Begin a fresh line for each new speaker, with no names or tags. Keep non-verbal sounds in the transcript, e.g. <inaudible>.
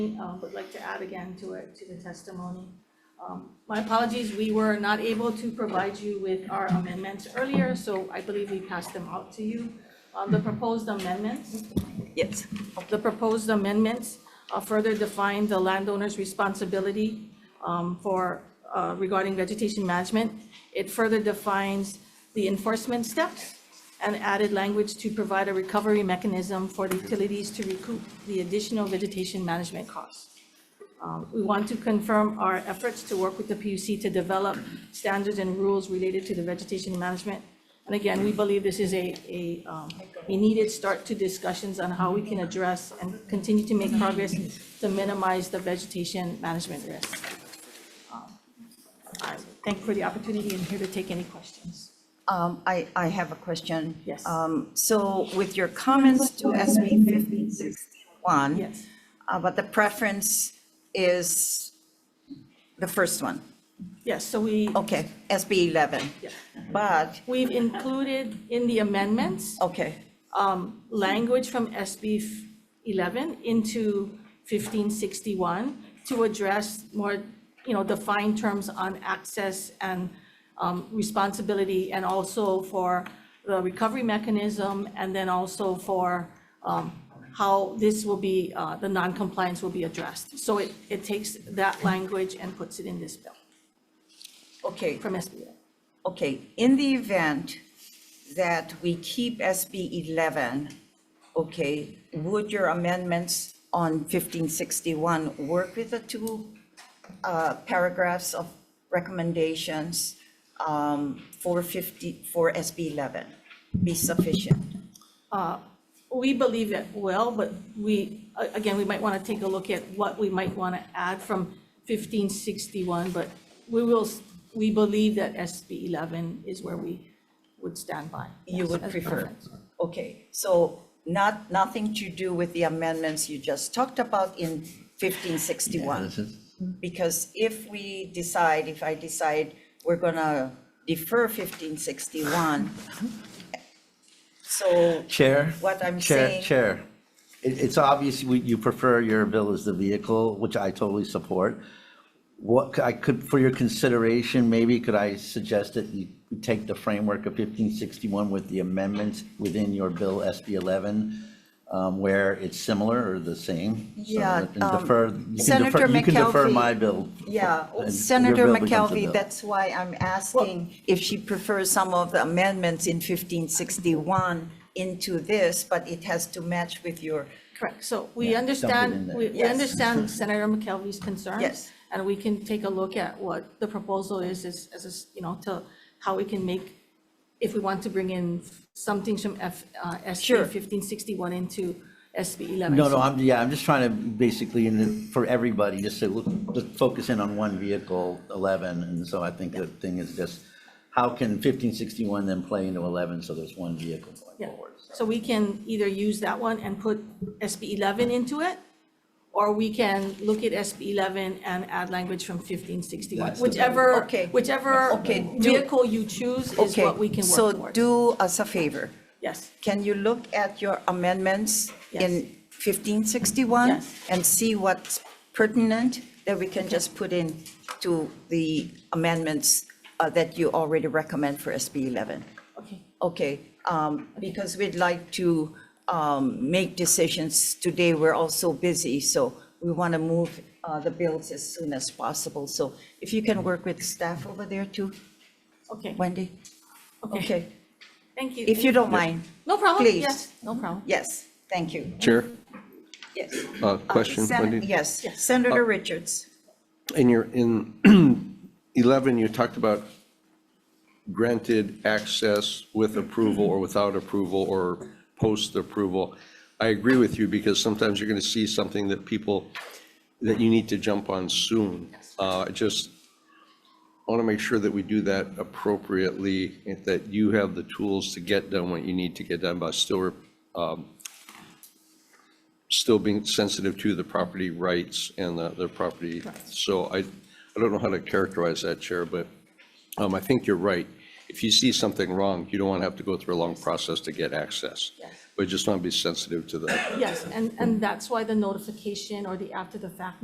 um, would like to add again to it, to the testimony. Um, My apologies, we were not able to provide you with our amendments earlier, so I believe we passed them out to you. Uh, The proposed amendments,
Yes.
the proposed amendments uh, further define the landowner's responsibility um, for, uh, regarding vegetation management. It further defines the enforcement steps and added language to provide a recovery mechanism for the utilities to recoup the additional vegetation management costs. Um, We want to confirm our efforts to work with the PUC to develop standards and rules related to the vegetation management. And again, we believe this is a, a, um, a needed start to discussions on how we can address and continue to make progress to minimize the vegetation management risk. Um, I Thank you for the opportunity and here to take any questions.
Um, I, I have a question.
Yes.
Um, so with your comments to SB fifteen sixty-one.
Yes,
Uh, but the preference is the first one,
yes, so we,
okay, SB eleven.
Yeah.
But,
we've included in the amendments
okay,
um, language from SB f- 11 into 1561 to address more, you know, defined terms on access and um, responsibility, and also for the recovery mechanism, and then also for um, how this will be, uh, the non-compliance will be addressed. So it, it takes that language and puts it in this bill
okay,
from SB 11.
okay. In the event that we keep SB eleven, okay, would your amendments on fifteen sixty-one work with the two uh, paragraphs of recommendations um, for fifty, for SB eleven be sufficient?
We believe that well, but we, a- again, we might want to take a look at what we might want to add from fifteen sixty-one, but we will, s- we believe that SB eleven is where we would stand by.
You
Yes,
would
as
prefer?
preference.
Okay, so not, nothing to do with the amendments you just talked about in 1561? Because if we decide, if I decide we're gonna defer 1561, so,
Chair?
What I'm
Chair-
saying-
Chair, it, it's obvious we- you prefer your bill as the vehicle, which I totally support. What, c- I could, for your consideration, maybe could I suggest that you take the framework of 1561 with the amendments within your bill SB 11, um, where it's similar or the same? So
Yeah,
that- and
um,
defer- you can
Senator
defer- You can defer
McKelvey-
my bill.
yeah, oh,
and your
Senator
bill becomes a
McKelvey,
bill.
that's why I'm asking if she prefers some of the amendments in 1561 into this, but it has to match with your,
Correct, so we
dump it in
understand,
there.
we, we
Yes.
understand
<laughs>
Senator McKelvey's concerns.
Yes.
And we can take a look at what the proposal is, as, as, a s- you know, to, how we can make, if we want to bring in something from F, uh,
Sure.
SB fifteen sixty-one into SB eleven.
No,
So
no, I'm, yeah, I'm just trying to basically, in the- for everybody, just say, look, just focus in on one vehicle, 11, and so I think the thing is just, how can 1561 then play into 11, so there's one vehicle
Yeah,
going forward?
so we can either use that one and put SB 11 into it, or we can look at SB 11 and add language from 1561.
That's the better.
Whichever,
Okay.
whichever
Okay, do-
vehicle you choose is
okay.
what we can
So
work towards.
do us a favor.
Yes,
Can you look at your amendments in
Yes.
1561?
Yes.
And see what's pertinent that we can just put in to the amendments uh, that you already recommend for SB 11?
okay,
Okay, um, because we'd like to um, make decisions today. We're all so busy, so we want to move uh, the bills as soon as possible. So if you can work with staff over there too,
okay,
Wendy?
okay, thank you.
If you don't mind,
No problem,
please.
yes, no problem.
yes, thank you.
Chair,
Yes.
uh,
Uh,
question,
Sen-
Wendy. Uh,
Yes, Senator Richards.
In your, in <clears throat> 11, you talked about granted access with approval or without approval or post approval. I agree with you because sometimes you're going to see something that people, that you need to jump on soon. Uh, I Just want to make sure that we do that appropriately, and that you have the tools to get done what you need to get done, but still um, still being sensitive to the property rights and the, the property. So I, I don't know how to characterize that, Chair, but um, I think you're right. if you see something wrong, you don't want to have to go through a long process to get access.
Yes.
But just want to be sensitive to the
Yes, and, and that's why the notification or the after-the-fact